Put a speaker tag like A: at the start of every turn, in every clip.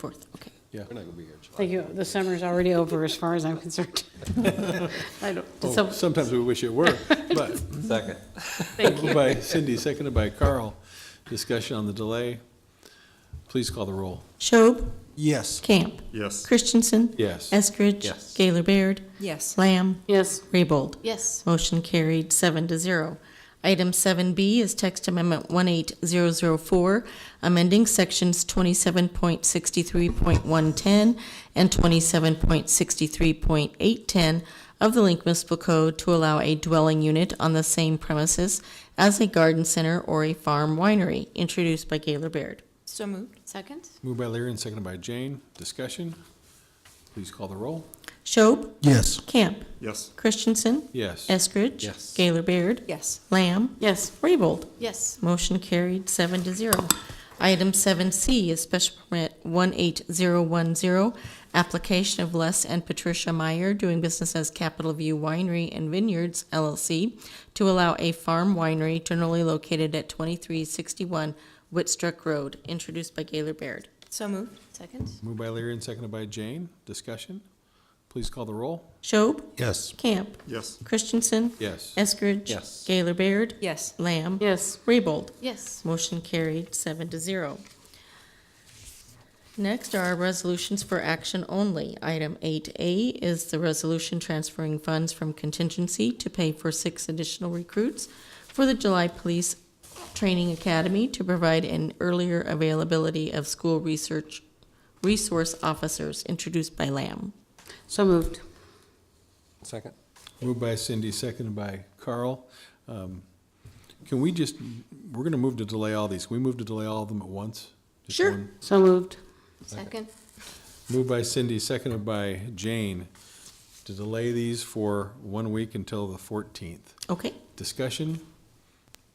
A: Fourth, okay.
B: Yeah. We're not gonna be here in July.
C: Thank you. The summer's already over as far as I'm concerned. I don't, did
B: Oh,
C: some-
B: Sometimes we wish it were, but,
D: Second.
C: thank you.
B: by Cindy, seconded by Carl, discussion on the delay. Please call the roll.
E: Schob,
F: Yes.
E: Camp,
F: Yes.
E: Christensen,
B: Yes.
E: Eskridge.
D: Yes.
E: Gaylor Baird,
A: Yes.
E: Lamb,
C: Yes,
E: Raybold.
A: Yes.
E: Motion carried, seven to zero. Item seven B is text amendment one eight zero zero four, amending sections twenty-seven point sixty-three point one ten and twenty-seven point sixty-three point eight ten of the Link Municipal Code to allow a dwelling unit on the same premises as a garden center or a farm winery, introduced by Gaylor Baird.
A: So moved. Second?
B: Moved by Leary and seconded by Jane, discussion. Please call the roll.
E: Schob,
F: Yes.
E: Camp,
F: Yes.
E: Christensen,
B: Yes.
E: Eskridge.
D: Yes.
E: Gaylor Baird,
A: Yes.
E: Lamb,
C: yes,
E: Raybold.
A: Yes.
E: Motion carried, seven to zero. Item seven C is special permit one eight zero one zero, application of Les and Patricia Meyer, doing business as Capital View Winery and Vineyards LLC, to allow a farm winery generally located at twenty-three sixty-one Whitstruck Road, introduced by Gaylor Baird.
A: So moved. Second?
B: Moved by Leary and seconded by Jane, discussion. Please call the roll.
E: Schob,
F: Yes.
E: Camp,
F: Yes.
E: Christensen,
B: Yes.
E: Eskridge.
D: Yes.
E: Gaylor Baird,
A: Yes.
E: Lamb.
C: yes.
E: Raybold.
A: Yes.
E: Motion carried, seven to zero. Next are our resolutions for action only. Item eight A is the resolution transferring funds from contingency to pay for six additional recruits for the July Police Training Academy to provide an earlier availability of school research resource officers, introduced by Lamb.
C: So moved.
D: Second.
B: Moved by Cindy, seconded by Carl. Um, Can we just, we're gonna move to delay all these. Can we move to delay all of them at once? Just
E: Sure.
B: one?
C: So moved.
A: Second?
B: Moved by Cindy, seconded by Jane, to delay these for one week until the 14th.
E: Okay,
B: Discussion?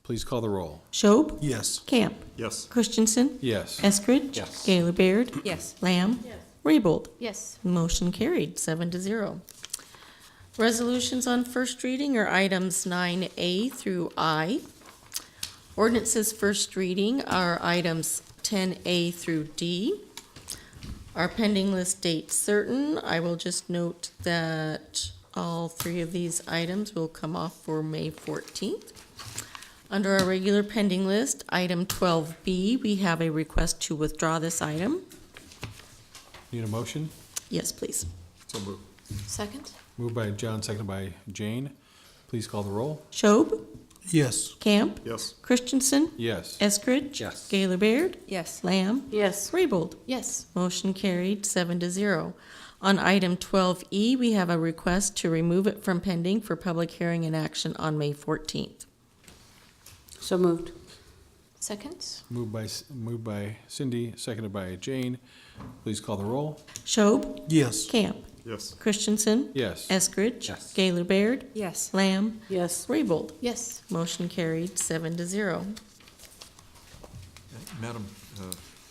B: Please call the roll.
E: Schob,
F: Yes.
E: Camp,
F: Yes.
E: Christensen,
B: Yes.
E: Eskridge.
D: Yes.
E: Gaylor Baird,
A: Yes.
E: Lamb. Raybold.
A: Yes.
E: Motion carried, seven to zero. Resolutions on first reading are items nine A through I. Ordinances first reading are items ten A through D. Our pending list date certain, I will just note that all three of these items will come off for May fourteenth. Under our regular pending list, item twelve B, we have a request to withdraw this item.
B: Need a motion?
E: Yes, please.
B: So moved.
A: Second?
B: Moved by John, seconded by Jane. Please call the roll.
E: Schob,
F: Yes.
E: Camp,
F: Yes.
E: Christensen,
B: Yes.
E: Eskridge.
D: Yes.
E: Gaylor Baird,
A: Yes.
E: Lamb,
C: Yes,
E: Raybold.
A: Yes.
E: Motion carried, seven to zero. On item twelve E, we have a request to remove it from pending for public hearing and action on May fourteenth.
C: so moved.
A: Second?
B: Moved by, moved by Cindy, seconded by Jane. Please call the roll.
E: Schob,
F: Yes.
E: Camp,
F: Yes.
E: Christensen,
B: Yes.
E: Eskridge.
D: Yes.
E: Gaylor Baird,
A: Yes.
E: Lamb,
C: Yes,
E: Raybold.
A: Yes.
E: Motion carried, seven to zero.
G: Madam uh,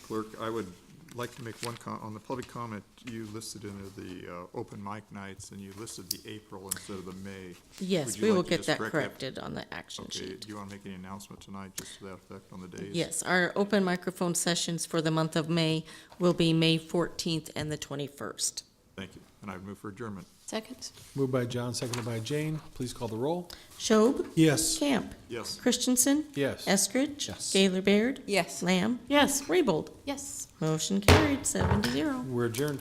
G: Clerk, I would like to make one com, on the public comment, you listed in the uh, open mic nights, and you listed the April instead of the May.
E: Yes,
G: Would you
E: we
G: like
E: will
G: to
E: get
G: just
E: that
G: correct
E: corrected on the action
G: Okay,
E: sheet.
G: do you want to make any announcement tonight, just to that effect on the days?
E: Yes, our open microphone sessions for the month of May will be May 14th and the 21st.
G: Thank you, and I would move for adjournment.
A: Second?
B: Moved by John, seconded by Jane. Please call the roll.
E: Schob,
F: Yes.
E: Camp,
G: Yes.
E: Christensen,
B: Yes.
E: Eskridge.
D: Yes.
E: Gaylor Baird,
A: Yes.
E: Lamb,
C: yes.
E: Raybold.
A: Yes.
E: Motion carried, seven to zero.
B: We're adjourned.